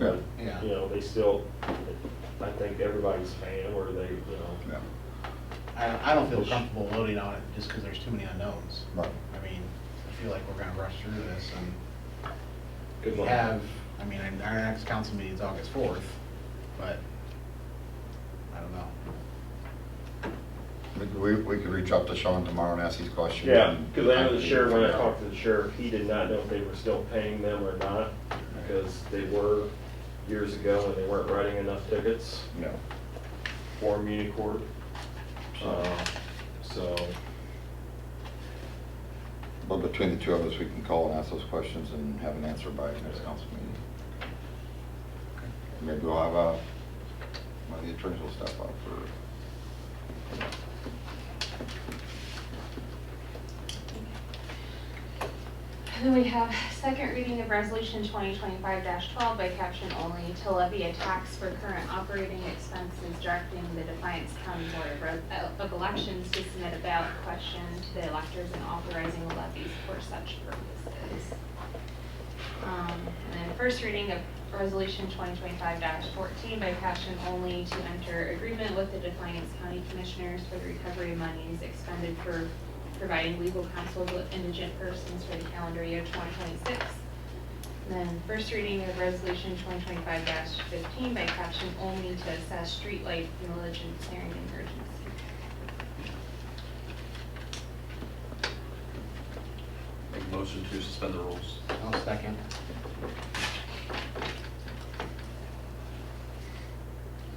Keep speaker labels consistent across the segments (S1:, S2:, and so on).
S1: Yeah.
S2: Yeah.
S3: You know, they still, I think everybody's fan or they, you know,
S1: Yeah,
S2: I, I don't feel comfortable voting on it just because there's too many unknowns.
S1: right.
S2: I mean, I feel like we're gonna rush through this and
S3: good
S2: we
S3: luck.
S2: have, I mean, and our next council meeting is August fourth, but I don't know.
S1: We, we we could reach out to Sean tomorrow and ask these questions.
S3: Yeah, because I know the sheriff, when I talked to the sheriff, he did not know if they were still paying them or not, because they were years ago and they weren't writing enough tickets
S1: No.
S3: forMunicorp. Uh, So,
S1: But between the two of us, we can call and ask those questions and have an answer by next council meeting. Maybe we'll have a, one of the attorneys will step up for.
S4: And then we have second reading of resolution twenty twenty-five twelve by caption only to levy a tax for current operating expenses directing the Defiance County Board of Re- uh, of Elections to submit a ballot question to the electors and authorizing levies for such purposes. Um, And then first reading of resolution twenty twenty-five fourteen by caption only to enter agreement with the Defiance County Commissioners for the recovery of monies expended for providing legal counsel to indigent persons for the calendar year 2026. And Then first reading of resolution 2025-15 by caption only to assess streetlight mileage and clearing and urgency.
S5: Make a motion to suspend the rules.
S2: I'll second.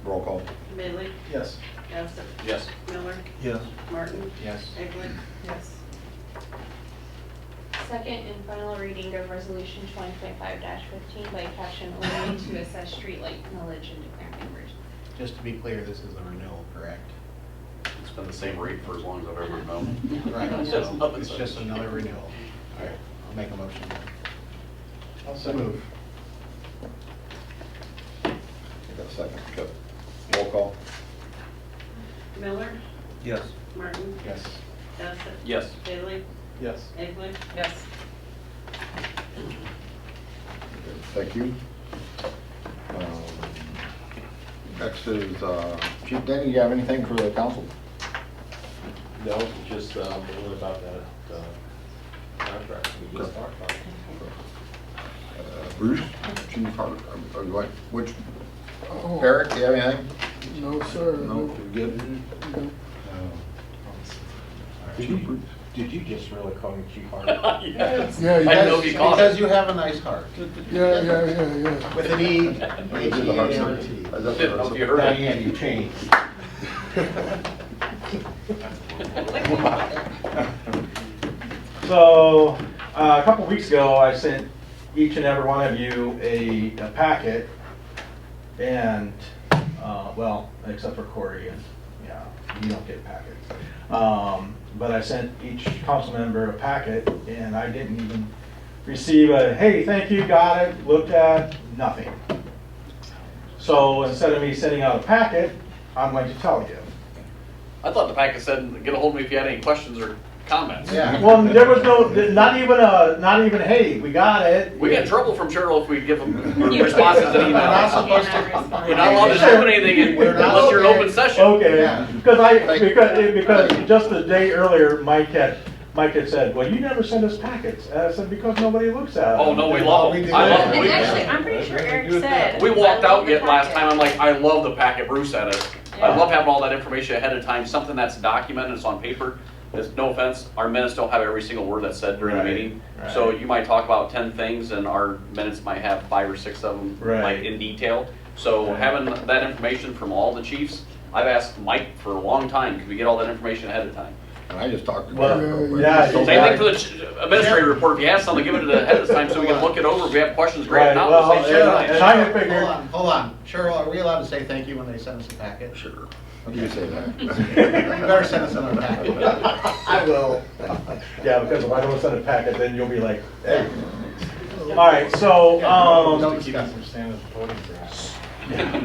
S1: Roll call.
S6: Midley,
S2: Yes.
S6: Bassett,
S5: Yes.
S6: Miller,
S7: Yes.
S6: Martin,
S2: Yes.
S6: Egley. Yes.
S4: Second and final reading of resolution 2025-15 by caption only to assess streetlight mileage and declaring an emergency.
S2: Just to be clear, this is a renewal, correct?
S5: It's been the same rate for as long as I've ever known.
S2: Right,
S5: It's
S2: so
S5: nothing
S2: it's just
S5: special.
S2: another renewal. All right, I'll make a motion. I'll second.
S1: You got a second? Good. Roll call.
S6: Miller,
S7: Yes.
S6: Martin,
S2: Yes.
S6: Bassett.
S5: Yes.
S6: Midley,
S2: Yes.
S6: Egley. Yes.
S1: Thank you. Um, Next is, uh, Chief Denny, you have anything for the council?
S3: no, just, um, a little about that, uh, contract we just talked about.
S1: Uh, Bruce, Chief Hart, uh, uh, what, which, Eric, do you have anything?
S8: No, sir.
S1: No, you good? Did you,
S9: Did you just really call me Chief Harvey?
S5: Yes.
S8: Yeah, you
S5: I know
S8: guys-
S5: you caught
S2: Because
S5: it.
S2: you have a nice heart.
S8: Yeah, yeah, yeah, yeah.
S2: With E an E,
S1: I did the hard side.
S2: H-E-A-R-T.
S1: I
S5: I don't know if you
S1: definitely-
S5: heard that.
S2: Diane, you changed.
S7: So, uh, a couple weeks ago, I sent each and every one of you a a packet, and, uh, well, except for Corey, and, yeah, you don't get packets. Um, But I sent each council member a packet, and I didn't even receive a, hey, thank you, got it, looked at, nothing. So instead of me sending out a packet, I'm going to tell you.
S5: I thought the packet said, get a hold of me if you had any questions or comments.
S2: Yeah.
S7: Well, there was no, not even a, not even, hey, we got it.
S5: We get in trouble from Cheryl if we give them responses and
S2: We're not
S5: emails.
S2: supposed to.
S5: You're not allowed to do anything
S2: We're not Oh,
S5: unless you're in open
S2: supposed-
S5: session.
S2: Yeah.
S7: Okay, because I,
S1: Like-
S7: because, because just the day earlier, Mike had, Mike had said, well, you never send us packets. And I said, because nobody looks at them.
S5: Oh, no, we love
S2: We do
S5: them. I love
S2: that.
S5: them.
S6: And
S5: We-
S6: actually, I'm pretty sure Eric said.
S5: We walked
S6: "I love
S5: out
S6: the
S5: yet last
S6: packet."
S5: time, I'm like, I love the packet Bruce had us. I
S6: Yeah.
S5: love having all that information ahead of time, something that's documented, it's on paper. There's no offense, our minutes don't have every single word that's said during the
S7: Right,
S5: meeting. So
S7: right.
S5: you might talk about ten things and our minutes might have five or six of them, like
S7: Right.
S5: in detail. So
S7: Right.
S5: having that information from all the chiefs, I've asked Mike for a long time, could we get all that information ahead of time?
S1: And I just talked to.
S7: Well,
S1: Eric real quick.
S7: yeah,
S1: So
S5: Same
S7: Right.
S5: thing for the ch- administrative report, if you have something, give it to the head of time so we can look it over, if we have questions, great, if
S7: Right,
S5: not,
S7: well,
S5: we'll say.
S7: yeah, and I had
S2: Hold
S7: figured-
S2: on, Hold on, Cheryl, are we allowed to say thank you when they send us a packet?
S1: Sure. You say that.
S2: You better send us another packet. I will.
S7: Yeah, because if I don't send a packet, then you'll be like, hey. All right, so,
S2: Don't
S7: um,
S2: discuss it.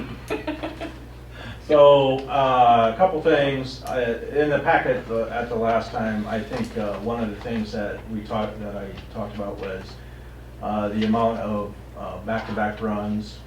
S7: so, uh, a couple things. Uh, In the packet the- at the last time, I think uh, one of the things that we talked, that I talked about was uh, the amount of uh, back-to-back runs